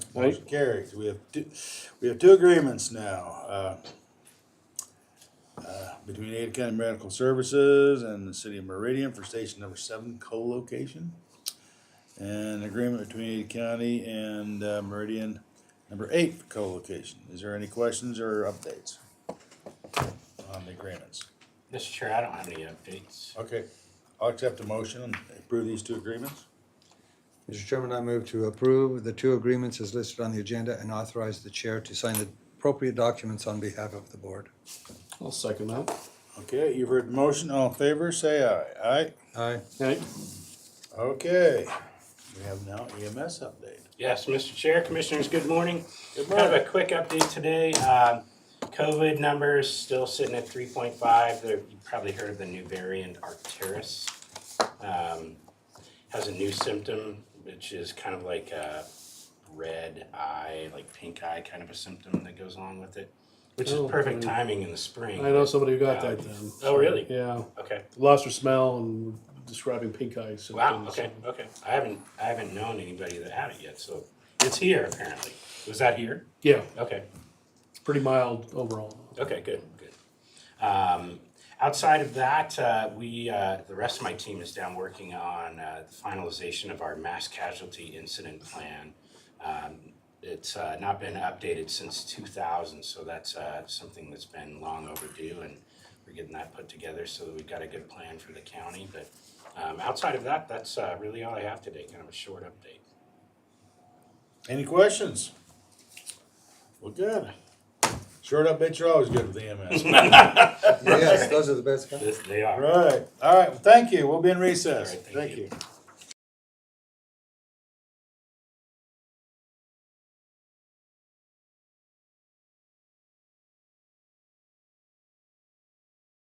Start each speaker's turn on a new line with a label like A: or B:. A: Right.
B: Motion carries. We have two, we have two agreements now. uh, uh, Between Ada County Medical Services and the City of Meridian for Station Number Seven co-location. And agreement between Ada County and uh, Meridian Number Eight for co-location. Is there any questions or updates on the agreements?
C: Mr. Chair, I don't have any updates.
B: Okay, I'll accept the motion and approve these two agreements.
D: Mr. Chairman, I move to approve the two agreements as listed on the agenda and authorize the chair to sign the appropriate documents on behalf of the board.
A: I'll second that.
B: Okay, you've heard the motion. All in favor, say aye. Aye?
D: Aye.
A: Okay,
B: Okay, we have now EMS update.
C: Yes, Mr. Chair, Commissioners, good morning.
B: Good
C: Kind of a quick update today. Um, COVID numbers still sitting at three point five. There, you probably heard of the new variant Arcturus. Um, has a new symptom, which is kind of like a red eye, like pink eye kind of a symptom that goes along with it, which is
A: Oh,
C: perfect
A: okay.
C: timing in the spring.
A: I know somebody who got that then.
C: Oh, really?
A: Yeah,
C: Okay.
A: lost her smell and describing pink eye symptoms.
C: Wow. Okay. Okay. I haven't I haven't known anybody that had it yet, so it's here apparently. Was that here?
A: Yeah,
C: Okay.
A: pretty mild overall.
C: Okay, good, good. Um, outside of that, uh, we, uh, the rest of my team is down working on, uh, the finalization of our mass casualty incident plan. Um, it's, uh, not been updated since two thousand, so that's, uh, something that's been long overdue and we're getting that put together so that we've got a good plan for the county, but, um, outside of that, that's, uh, really all I have today, kind of a short update.
B: Any questions? Well, good. Short updates are always good with E EMS.
D: Yes, those are the best.
C: This, they are.
B: Right, all right, well, thank you, we'll be in recess.
C: All right, thank
B: Thank
C: you.
B: you.